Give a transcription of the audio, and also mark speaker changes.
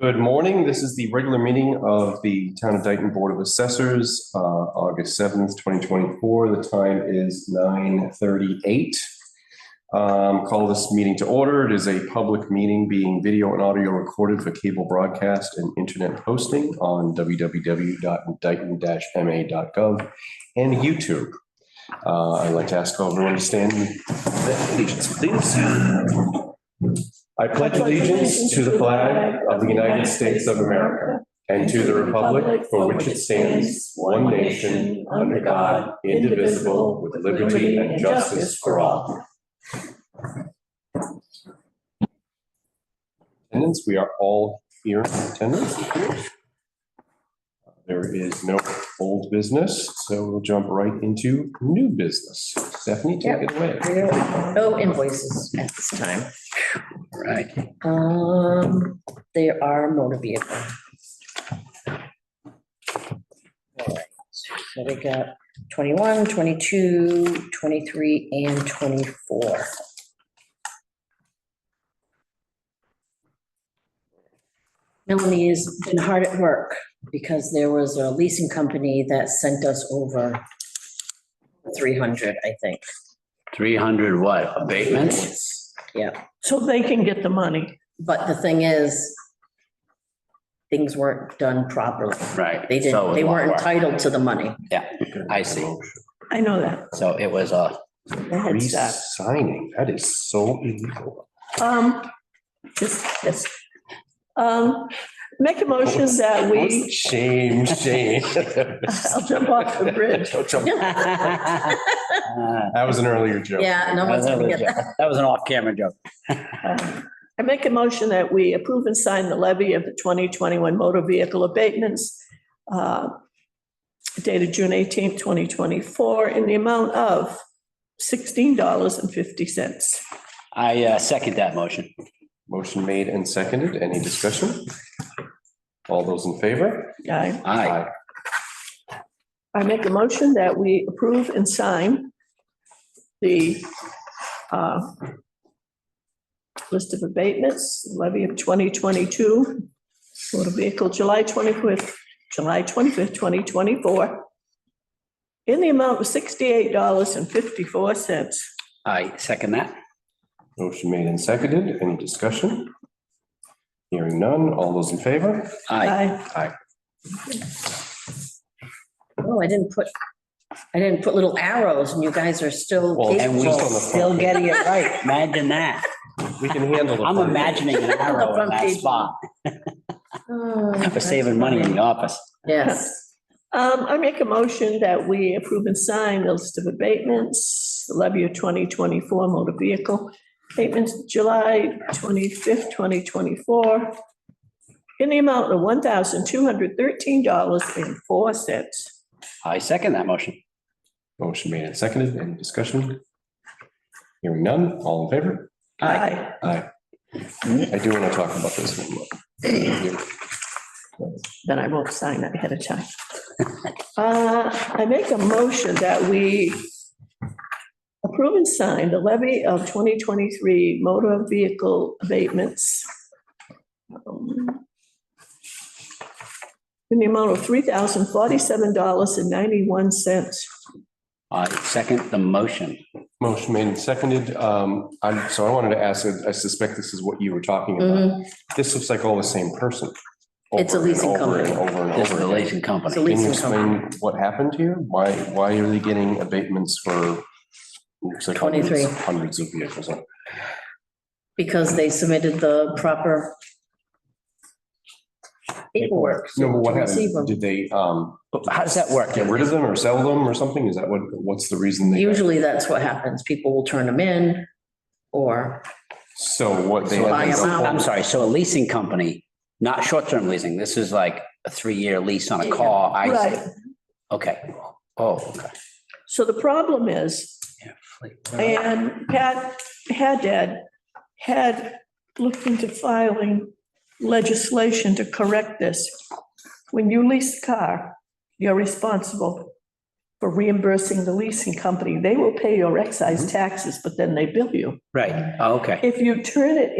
Speaker 1: Good morning. This is the regular meeting of the Town of Dayton Board of Assessors, uh, August seventh, twenty twenty-four. The time is nine thirty-eight. Um, call this meeting to order. It is a public meeting being video and audio recorded for cable broadcast and internet hosting on E www.dayton-ma.gov and YouTube. Uh, I'd like to ask everyone to stand. Allegiance, please. I pledge allegiance to the flag of the United States of America and to the republic for which it stands, one nation, under God, indivisible, with liberty and justice for all. Attendance, we are all here in attendance. There is no old business, so we'll jump right into new business. Stephanie, take it away.
Speaker 2: No invoices at this time. Right. Um, there are motor vehicle. All right. So we got 21, 22, 23, and 24. Melanie has been hard at work because there was a leasing company that sent us over 300, I think.
Speaker 3: 300 what, abatements?
Speaker 2: Yeah,
Speaker 4: So they can get the money.
Speaker 2: but the thing is, things weren't done properly.
Speaker 3: Right.
Speaker 2: They
Speaker 3: so
Speaker 2: didn't,
Speaker 3: it
Speaker 2: they
Speaker 3: won't
Speaker 2: weren't
Speaker 3: work.
Speaker 2: entitled to the money.
Speaker 3: I see.
Speaker 4: I know that.
Speaker 3: So it was a,
Speaker 4: The head start.
Speaker 1: Resigning, that is so illegal.
Speaker 4: Um, just, just, um, make a motion that we,
Speaker 1: Shame, shame.
Speaker 4: I'll jump off the bridge.
Speaker 1: Don't jump.
Speaker 2: Yeah,
Speaker 3: ah,
Speaker 1: That was an earlier joke.
Speaker 2: no
Speaker 3: that
Speaker 2: one's
Speaker 3: was
Speaker 2: gonna
Speaker 3: a
Speaker 2: get that.
Speaker 3: joke. that was an off-camera joke.
Speaker 4: uh, I make a motion that we approve and sign the levy of the 2021 motor vehicle abatements uh, dated June 18th, 2024, in the amount of $16.50.
Speaker 3: I uh, second that motion.
Speaker 1: Motion made and seconded. Any discussion? All those in favor?
Speaker 4: I
Speaker 3: Aye.
Speaker 4: I make a motion that we approve and sign the uh, list of abatements, levy of 2022, motor vehicle, July 25th, July 25th, 2024, in the amount of $68.54.
Speaker 3: I second that.
Speaker 1: Motion made and seconded. Any discussion? Hearing none. All those in favor?
Speaker 2: Uh,
Speaker 3: Aye.
Speaker 4: I
Speaker 2: Oh, I didn't put, I didn't put little arrows and you guys are still.
Speaker 1: Well,
Speaker 3: And we
Speaker 1: Just on the front
Speaker 3: still
Speaker 1: page.
Speaker 3: getting it right. Imagine that.
Speaker 1: We can handle the.
Speaker 3: I'm imagining an arrow in
Speaker 2: Front
Speaker 3: that
Speaker 2: page.
Speaker 3: spot.
Speaker 2: Oh,
Speaker 3: We're saving money in the office.
Speaker 2: Yes,
Speaker 4: Um, I make a motion that we approve and sign the list of abatements, the levy of 2024 motor vehicle abatements, July 25th, 2024, in the amount of $1,213.04.
Speaker 3: I second that motion.
Speaker 1: Motion made and seconded. Any discussion? Hearing none. All in favor?
Speaker 3: Aye.
Speaker 4: Aye.
Speaker 1: Aye. I do want to talk about this one. more. Thank you.
Speaker 4: Then I won't sign that ahead of time. Uh, I make a motion that we approve and sign the levy of 2023 motor vehicle abatements um, in the amount of $3,047.91.
Speaker 3: I second the motion.
Speaker 1: Motion made and seconded. Um, I'm, so I wanted to ask, I suspect this is what you were talking about.
Speaker 2: Mhm.
Speaker 1: This looks like all the same person.
Speaker 2: It's a
Speaker 1: Over and
Speaker 2: leasing
Speaker 1: over and
Speaker 2: company.
Speaker 1: Over and
Speaker 3: This is the
Speaker 1: over again.
Speaker 3: leasing company.
Speaker 2: It's a
Speaker 1: Can you
Speaker 2: leasing company.
Speaker 1: explain what happened here? Why, why are they getting abatements for? looks like hundreds-
Speaker 2: 23.
Speaker 1: Hundreds of vehicles.
Speaker 2: because they submitted the proper paperwork.
Speaker 1: No, but what
Speaker 2: to receive them.
Speaker 1: happened? Did they, um,
Speaker 3: But How does that work?
Speaker 1: get rid of them or sell them or something? Is that what, what's the reason? they got-
Speaker 2: Usually that's what happens. People will turn them in or
Speaker 1: So what they.
Speaker 3: So
Speaker 2: Buy
Speaker 3: a
Speaker 2: them
Speaker 3: leasing-
Speaker 2: out.
Speaker 3: I'm sorry, so a leasing company, not short-term leasing, this is like a three-year lease on a
Speaker 2: Yeah.
Speaker 3: car. I see.
Speaker 4: Right.
Speaker 3: Okay. Oh, okay.
Speaker 4: So the problem is,
Speaker 3: Yeah, fleet.
Speaker 4: And Pat Haddad had looked into filing legislation to correct this. When you lease a car, you're responsible for reimbursing the leasing company. They will pay your excise taxes, but then they bill you.
Speaker 3: Right, oh, okay.
Speaker 4: If you turn it